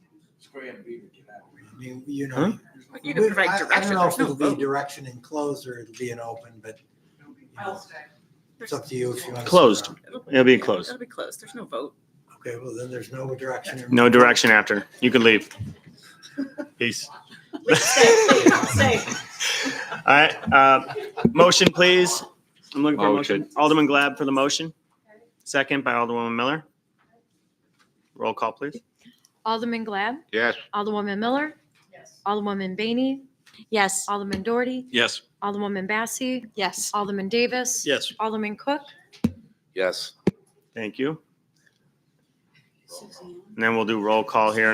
Graham Beaver get out. I mean, you Huh? know. You can we- provide I- I direction. don't know There's if no it'll be vote. direction enclosed or it'll be an open, but you know, it's up to you if you want. to sit Closed. around. It'll be closed. It'll be closed. There's no vote. Okay, well, then there's no direction. No direction after. You can leave. Peace. Safe. All right. Uh, motion, please. I'm looking for a Motion. motion. Alderman Glad for the motion. Second by Alderwoman Miller. Roll call, please. Alderman Glad, Yes. Alderwoman Miller, Yes. Alderwoman Bainey, Yes. Alderman Doherty, Yes. Alderwoman Bassi, Yes. Alderman Davis. Yes. Alderman Cook. Yes. Thank you. And then we'll do roll call here in a